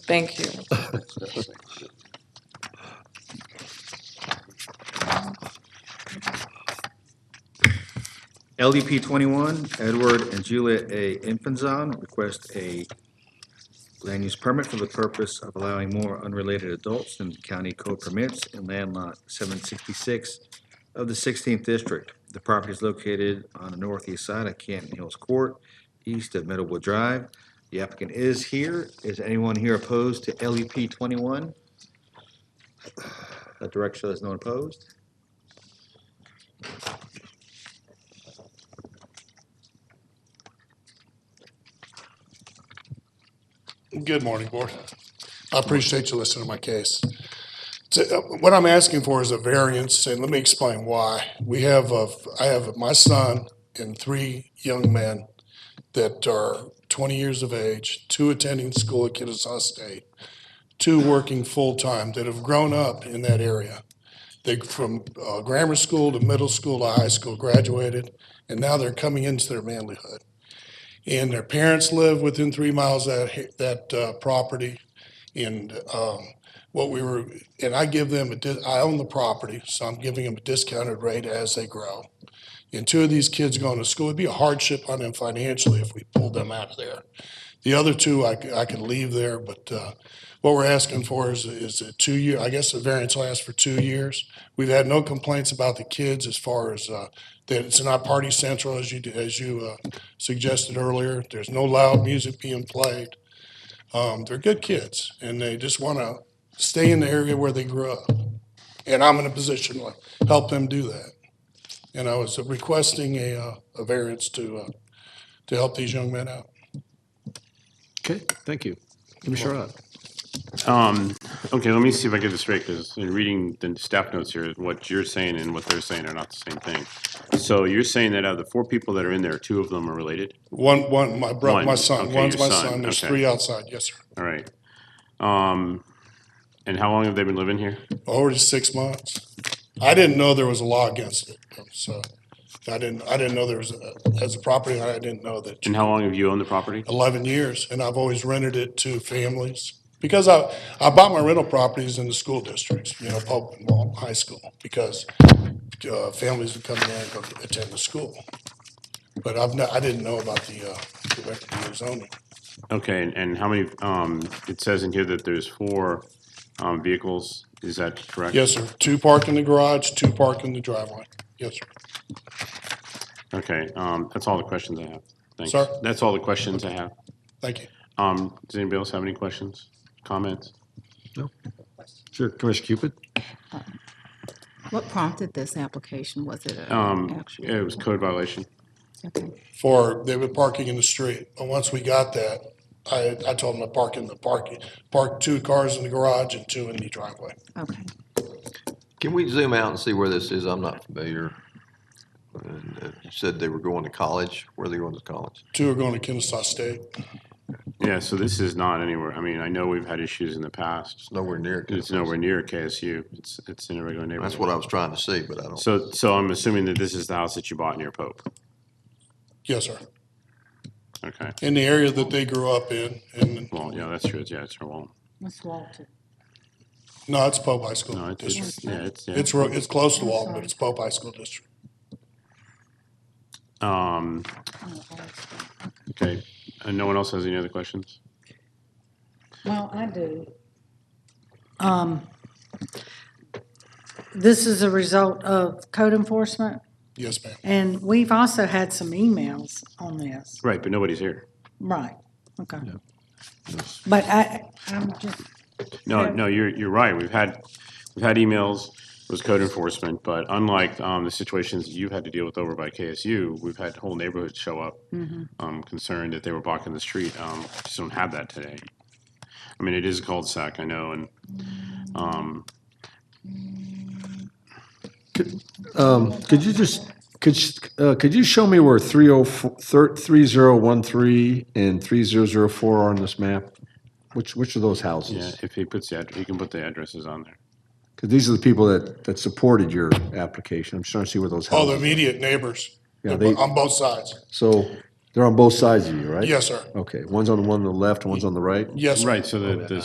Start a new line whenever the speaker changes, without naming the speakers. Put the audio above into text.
Thank you.
LDP E twenty-one, Edward and Juliet A. Infanzon request a land use permit for the purpose of allowing more unrelated adults than county code permits in land lot seven sixty-six of the sixteenth district. The property is located on the northeast side of Canton Hills Court, east of Middlewood Drive. The applicant is here. Is anyone here opposed to LEP twenty-one? That direction, there's no one opposed?
Good morning, Board. I appreciate you listening to my case. So, uh, What I'm asking for is a variance, and let me explain why. We have, a- I have my son and three young men that are 20 years of age, two attending school at Kennesaw State, two working full-time that have grown up in that area. They, from uh, grammar school to middle school to high school, graduated, and now they're coming into their manhood and their parents live within three miles of that, that uh, property. And um, what we were, and I give them, a di- I own the property, so I'm giving them a discounted rate as they grow. And two of these kids going to school, it'd be a hardship on them financially if we pulled them out of there. The other two, I, c- I could leave there, but uh, what we're asking for is, is a two-year, I guess the variance lasts for two years. We've had no complaints about the kids as far as uh, that it's not party central as you, as you uh, suggested earlier. There's no loud music being played. Um, they're good kids and they just want to stay in the area where they grew up. And I'm in a position to help them do that. And I was requesting a, uh, a variance to, uh, to help these young men out.
Okay, thank you. Commissioner Rod?
Um, okay, let me see if I get this straight, because in reading the staff notes here, what you're saying and what they're saying are not the same thing. So you're saying that out of the four people that are in there, two of them are related?
One, one, my brother,
One,
my son,
okay,
one's
your
my
son,
son, there's
okay.
three outside, yes, sir.
All right. Um, and how long have they been living here?
Already six months. I didn't know there was a law against it, so I didn't, I didn't know there was, a- as a property, owner, I didn't know that.
And how long have you owned the property?
11 years, and I've always rented it to families. Because I, I bought my rental properties in the school districts, you know, Pope and Wall High School, because uh, families would come there and go attend the school. But I've not, I didn't know about the, uh, the record of zoning.
Okay, and, and how many, um, it says in here that there's four, um, vehicles, is that correct?
Yes, sir, two park in the garage, two park in the driveway. Yes, sir.
Okay, um, that's all the questions I have. Thanks.
Sir?
That's all the questions I have.
Thank you.
Um, does anybody else have any questions, comments?
Sure, Commissioner Cupid?
What prompted this application? Was it a
Um,
actual?
it was code violation.
Okay.
For, they were parking in the street, but once we got that, I, I told them to park in the parking, park two cars in the garage and two in the driveway.
Okay.
Can we zoom out and see where this is? I'm not familiar. And, uh, You said they were going to college. Where are they going to college?
Two are going to Kennesaw State.
Yeah, so this is not anywhere, I mean, I know we've had issues in the past.
It's nowhere near.
It's nowhere near KSU. It's, it's in a regular neighborhood.
That's what I was trying to see, but I don't.
So, so I'm assuming that this is the house that you bought near Pope.
Yes, sir.
Okay.
in the area that they grew up in. And
Well, yeah, that's true. It's- Yeah, it's her wall.
Ms. Walter.
no, it's Pope High
No,
School
it's, it's,
District.
yeah, it's, yeah.
It's, ro- it's close to Walton, but it's Pope High School District.
Um, okay. And no one else has any other questions?
Well, Oh, I do. Um, This is a result of code enforcement,
Yes, ma'am.
and we've also had some emails on this.
Right, but nobody's here.
Right, okay. But I, I'm just,
No,
Okay.
no, you're, you're right. We've had, we've had emails, it was code enforcement, but unlike um, the situations you've had to deal with over by KSU, we've had whole neighborhoods show up um, concerned that they were blocking the street. Um, Just don't have that today. I mean, it is a cul-de-sac, I know, and, um,
Um, could you just, could, sh- uh, could you show me where 304, 3013 and 3004 are on this map? Which, which of those
yeah,
houses?
if he puts the, address, he can put the addresses on there.
Because these are the people that, that supported your application. I'm just trying to see where those
Oh, the
houses.
immediate neighbors
Yeah, they-
on both sides.
So they're on both sides of you, right?
Yes, sir.
Okay, one's on the one on the left, one's on the right?
Yes, sir.
Right, so the, the